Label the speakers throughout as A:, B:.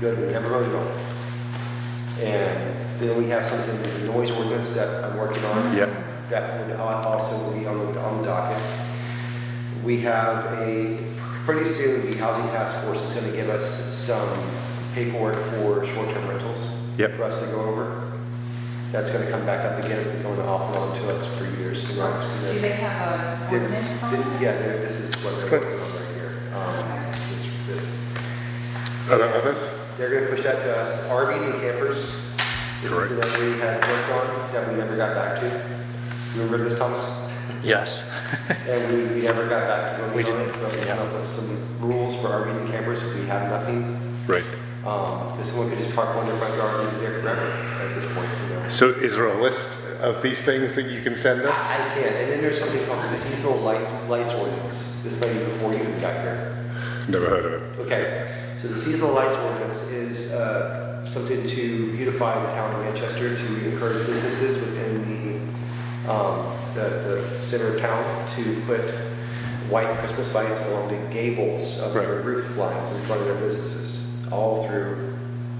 A: go to Kemper Road Yard. And then we have something, the noise ordinance that I'm working on.
B: Yep.
A: That would al- also be on the, on the docket. We have a, pretty soon, the Housing Task Force is gonna give us some paperwork for short-term rentals.
B: Yep.
A: For us to go over. That's gonna come back up again, it's been going off and on to us for years. you know, it's been a-
C: Do they have an
A: did-
C: ordinance on
A: did-
C: it?
A: Yeah, there- this is what they're working on right here. Um, this- this-
B: Other others?
A: They're gonna push that to us, RVs and campers. This is
B: Correct.
A: the one we had worked on, that we never got back to. Remember this, Thomas?
D: Yes.
A: And we, we never got back to
D: We
A: working on it,
D: didn't,
A: but we
D: yeah.
A: came up with some rules for RVs and campers, we have nothing.
B: Right.
A: Um, because someone could just park one in their front yard and be there forever at this point, you know?
B: So is there a list of these things that you can send
A: I
B: us?
A: I can't, and then there's something called the seasonal light, lights ordinance. This might be before you even got here.
B: Never heard of it.
A: Okay, so the seasonal lights ordinance is uh, something to beautify the town of Manchester, to encourage businesses within the, um, the, the center of town to put white Christmas lights along the gables of their
B: Right.
A: roof lines in front of their businesses, all through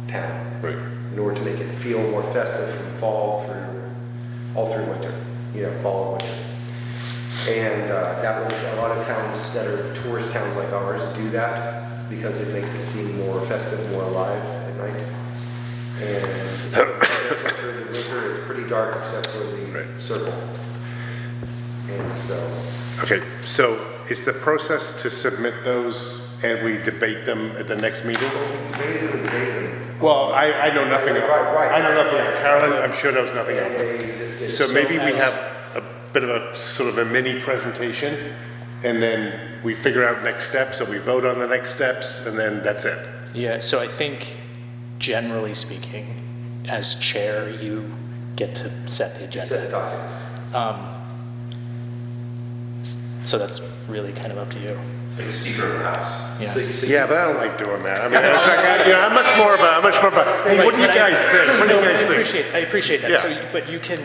A: town,
B: Right.
A: in order to make it feel more festive from fall through, all through winter, you know, fall and winter. And uh, that was, a lot of towns that are tourist towns like ours do that because it makes it seem more festive, more alive at night. And during the winter, it's pretty dark except for
B: Right.
A: the circle. And so,
B: Okay, so is the process to submit those and we debate them at the next meeting?
A: debated and debated,
B: Well, I, I know nothing of,
A: Right, right.
B: I know nothing of Carolyn, I'm sure knows nothing
A: and
B: of it.
A: they just get.
B: So maybe we
D: as-
B: have a bit of a, sort of a mini presentation and then we figure out next steps or we vote on the next steps and then that's it.
D: Yeah, so I think generally speaking, as chair, you get to set the
A: Just set
D: agenda.
A: a document.
D: So that's really kind of up to you.
E: It's like a speaker of the house.
D: Yeah.
A: So- so you-
B: Yeah, but I don't like doing that. I mean, it's like, I- you know, I'm much more of a, I'm much more of a, hey, what do you
D: But I-
B: guys think? What do
D: No,
B: you guys
D: I
B: think?
D: appreciate, I appreciate
B: Yeah.
D: that. So, you- but you can,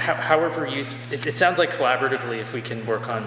D: ho- however you, th- it, it sounds like collaboratively if we can work on,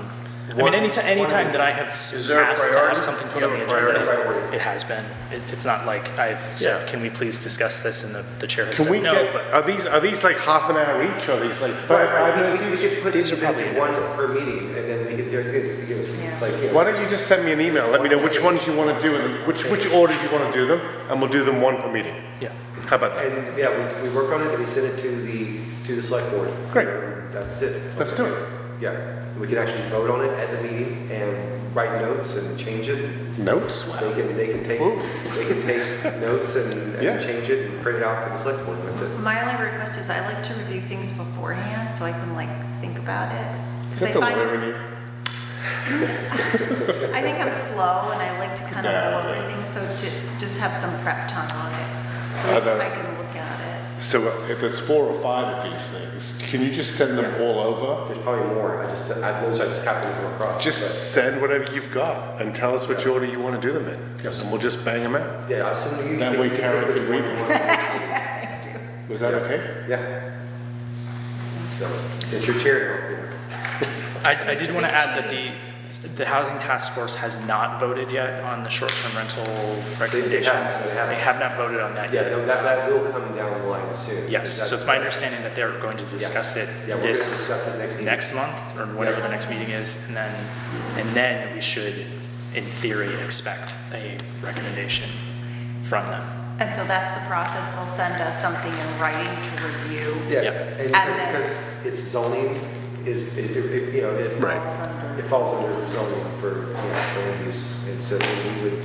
D: I mean,
B: One-
D: anytime, anytime that I have s-
B: Is there a
D: asked to
B: priority?
D: have something put
B: You
D: on the
B: have a priority?
D: agenda, it has been. It, it's not like I've said, can we please discuss this and the, the chair has
B: Can we
D: said no,
B: get,
D: but.
B: are these, are these like half an hour each or are these like
A: Right,
B: five, five
A: right,
B: minutes
A: we- we, we
B: each?
A: could put
D: These
A: these
D: are probably
A: into one per meeting and then we could, they're good, give us, it's like. you know,
B: Why don't you just send me an email? Let me know which ones you want to do and which, which order you want to do them, and we'll do them one per meeting.
D: Yeah.
B: How about that?
A: And yeah, we, we work on it and we send it to the, to the select board.
B: Great.
A: And That's it.
B: Let's do it.
A: Yeah, we can actually vote on it at the meeting and write notes and change it.
B: Notes?
A: They can, they can take,
B: Ooh.
A: they can take notes and,
B: Yeah.
A: and change it and print it out for the select board, that's it.
F: My only request is I like to review things beforehand so I can like think about it.
B: Is
F: Because I
B: that the
F: find,
B: lawyer in you?
F: I think I'm slow and I like to kind of
B: Nah,
F: go
B: nah.
F: over things, so to just have some prep time on it. So
B: How about-
F: I can look at
B: So uh, if there's four or five of these things, can you just send them all over?
A: There's probably more, I just, I, those I just happened to come across.
B: Just send whatever you've got and tell us which order you want to do them in. And we'll just bang them out.
A: but, Yeah, I'll send you. you
B: That
A: pick-
B: way
A: you pick
B: Karen
A: which
B: can
A: one
B: read
A: you
B: it.
A: want.
B: Was that okay?
A: Yeah. So, since you're chair now.
D: I, I did want to add that the, the Housing Task Force has not voted yet on the short-term rental recommendations.
A: they haven't.
D: They have not voted on that
A: Yeah,
D: yet.
A: that, that will come down the line soon.
D: Yes, so it's my understanding that they're going to discuss it
A: Yeah, we're gonna
D: this,
A: discuss it next meeting.
D: next month, or whatever the next meeting is, and then, and then we should, in theory, expect a recommendation from them.
F: it. And so that's the process. They'll send us something in writing to review.
A: Yeah,
D: Yep.
A: and
F: And then-
A: because it's zoning is, it- it- you know, it.
B: Right.
F: Falls under-
A: It falls under zoning for, you know, land use, and so then we would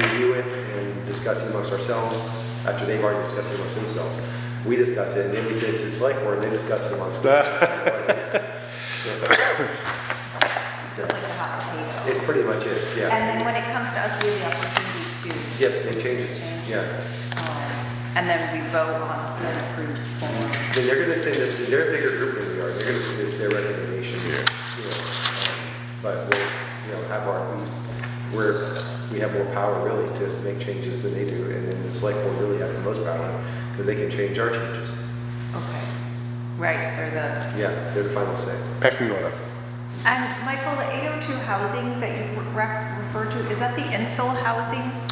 A: review it and discuss it amongst ourselves, after they've already discussed it amongst themselves. We discuss it, and then we send it to the select board, and they discuss it amongst themselves.
F: It's like a hot potato.
A: It pretty much is, yeah.
F: And then when it comes to us, we have the opportunity to.
A: Yep, it changes, yeah.
F: Um, And then we vote on the approved form.
A: Then they're gonna send this, they're a bigger group than we are, they're gonna send us their recommendations. you know, um, But we'll, you know, have our, we're, we have more power really to make changes than they do, and then the select board really has the most power, because they can change our changes.
F: Okay, right, they're the,
A: Yeah, they're the final say.
B: Pecking order.
F: oh and Michael, the 802 housing that you re- referred to, is that the infill housing